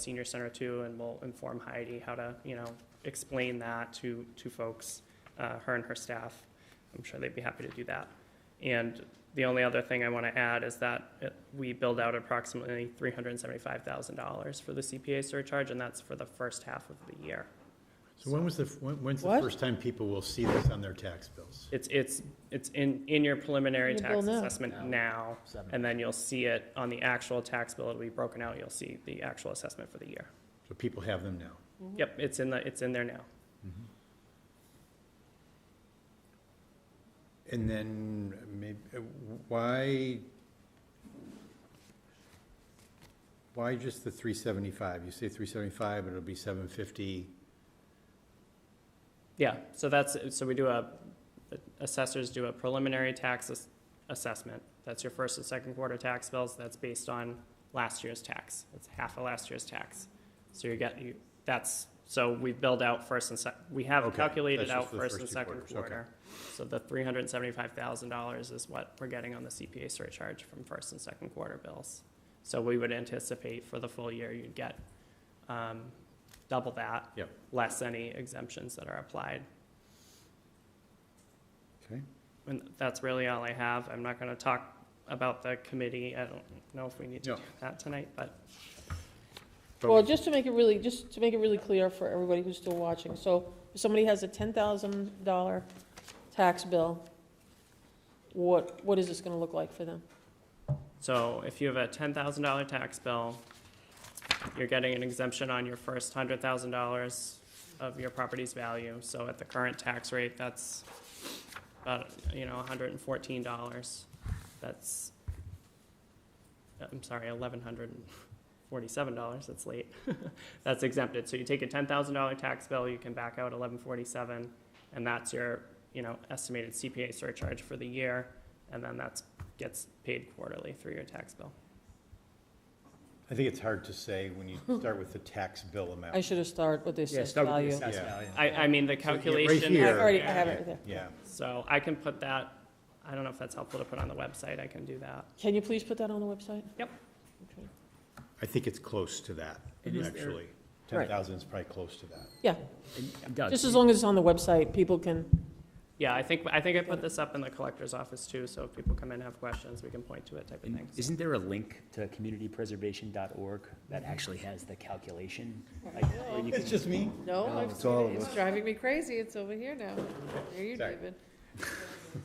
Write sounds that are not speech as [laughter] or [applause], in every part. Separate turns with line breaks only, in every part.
senior center too, and we'll inform Heidi how to, you know, explain that to, to folks, uh, her and her staff. I'm sure they'd be happy to do that. And the only other thing I want to add is that uh, we build out approximately three hundred and seventy-five thousand dollars for the CPA surcharge, and that's for the first half of the year.
So when was the, when- when's the
What?
first time people will see this on their tax bills?
It's, it's, it's in, in your preliminary
In the
tax
bill now.
assessment now, and then you'll see it on the actual tax bill, it'll be broken out, you'll see the actual assessment for the year.
So people have them now.
Yep, it's in the, it's in there now.
And then maybe, why, why just the three seventy-five? You say three seventy-five, but it'll be seven fifty.
Yeah, so that's, so we do a, assessors do a preliminary tax ass- assessment. That's your first and second quarter tax bills, that's based on last year's tax. It's half of last year's tax. So you get, you, that's, so we build out first and sec, we have
Okay,
calculated
that's just
out
for the
first
first
and
two
second
quarters, okay.
quarter. So the three hundred and seventy-five thousand dollars is what we're getting on the CPA surcharge from first and second quarter bills. So we would anticipate for the full year, you'd get, um, double that.
Yep.
Less any exemptions that are applied.
Okay.
And that's really all I have. I'm not going to talk about the committee. I don't know if we need to
No.
do that tonight, but
But
Well, just to make it really, just to make it really clear for everybody who's still watching, so if somebody has a ten thousand dollar tax bill, what, what is this gonna look like for them?
so if you have a ten thousand dollar tax bill, you're getting an exemption on your first hundred thousand dollars of your property's value. So at the current tax rate, that's about, you know, hundred and fourteen dollars. That's, I'm sorry, eleven hundred and forty-seven dollars. That's late. [laughs] that's exempted. So you take a ten thousand dollar tax bill, you can back out eleven forty-seven, and that's your, you know, estimated CPA surcharge for the year, and then that's, gets paid quarterly through your tax bill.
I think it's hard to say
[laughs]
when you start with the tax bill amount.
I should have started with this assessed value.
assessed
Yeah.
value.
I, I mean, the
Uh, So, yeah, right
calculation.
I
here.
already, I have it right there.
Yeah,
So I can put that, I don't know if that's helpful to put on the website, I can do that.
Can you please put that on the website?
Yep.
Okay.
I think it's close to that,
It is there.
actually.
Right.
Ten thousand is probably close to that.
Yeah,
And Doug,
just as long as it's on the website, people can,
Yeah, I think, I think I put this up in the collector's office too, so if people come in and have questions, we can point to it type of
and
thing.
Isn't there a link to communitypreservation.org that actually has the calculation? Like, where you can-
just me?
No,
No,
I've
it's
seen
all
it.
of
It's
us.
driving me crazy. It's over here now. There you,
Sorry.
David. It's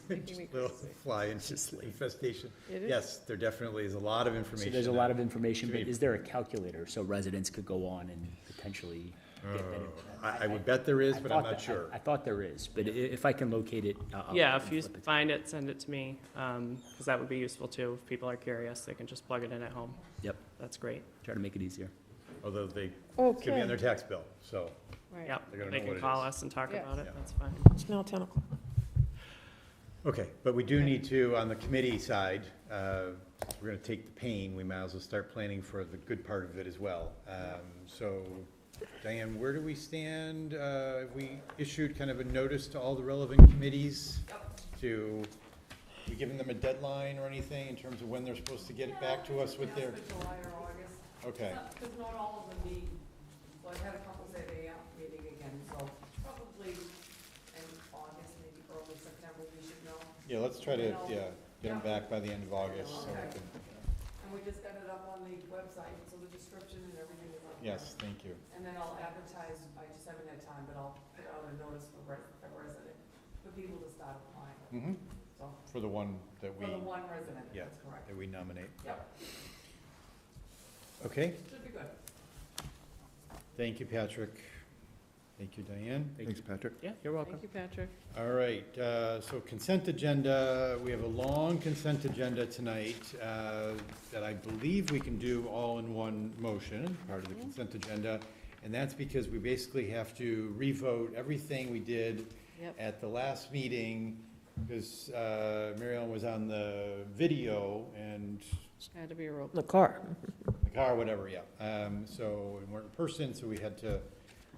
making
[laughs]
me
Little
crazy.
fly infestation.
It is.
Yes, there definitely is a lot of
So
information.
there's a lot
out
of information, but
Should be-
is there a calculator so residents could go on and potentially get
Oh,
that? information?
I, I would bet there is,
I
but
thought
I'm
that-
not
I-
sure.
I thought there is, but i- if I can locate it, uh, I'll.
Yeah,
I'll
if you
flip it.
find it, send it to me, um, because that would be useful too. If people are curious, they can just plug it in at home.
Yep,
That's great.
try to make it easier.
Although they could be on their
Okay.
tax bill, so.
Right.
Yep,
They're gonna
they
know
can
what it
call
is.
us and talk
Yeah.
about it,
Yeah.
that's fine.
it's now ten o'clock.
Okay, but we do need to, on the committee side, uh, if we're gonna take the pain, we might as well start planning for the good part of it as well. Um, so Diane, where do we stand? Uh, we issued kind of a notice to all the relevant committees to, we giving them a deadline or anything in terms of when they're supposed to get it back to us with their?
July or August.
Okay,
Because not all of them meet, well, I've had a couple say they are meeting again, so probably in August, maybe early September, we should know.
yeah, let's try to, yeah, get them back by the end of August so we can,
And we just got it up on the website, so the description and everything is up there.
yes, thank you.
And then I'll advertise, I just haven't had time, but I'll put out a notice for res- for resident, for people to start applying,
hmm
so,
for the one that we,
for the one resident,
Yeah.
that's correct.
that we nominate.
Yep,
Okay,
should be good.
Thank you, Patrick. Thank you, Diane.
Thanks, Patrick.
Yeah, you're welcome.
Thank you, Patrick.
All right, uh, so consent agenda, we have a long consent agenda tonight uh, that I believe we can do all in one motion, part of the consent agenda. And that's because we basically have to revote everything we did
Yep.
at the last meeting because Mary Ellen was on the video and
Had to be a roll.
In the car.
the car, whatever, yeah. Um, So we weren't in person, so we had to,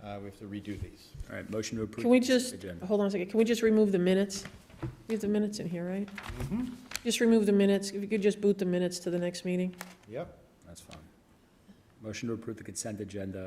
uh, we have to redo these.
All right, motion to approve.
Can we
consent
just,
agenda.
hold on a second, can we just remove the minutes? We have the minutes in here, right?
Mm-hmm.
Just remove the minutes, if you could just boot the minutes to the next meeting.
Yep.
That's fine. Motion to approve the consent agenda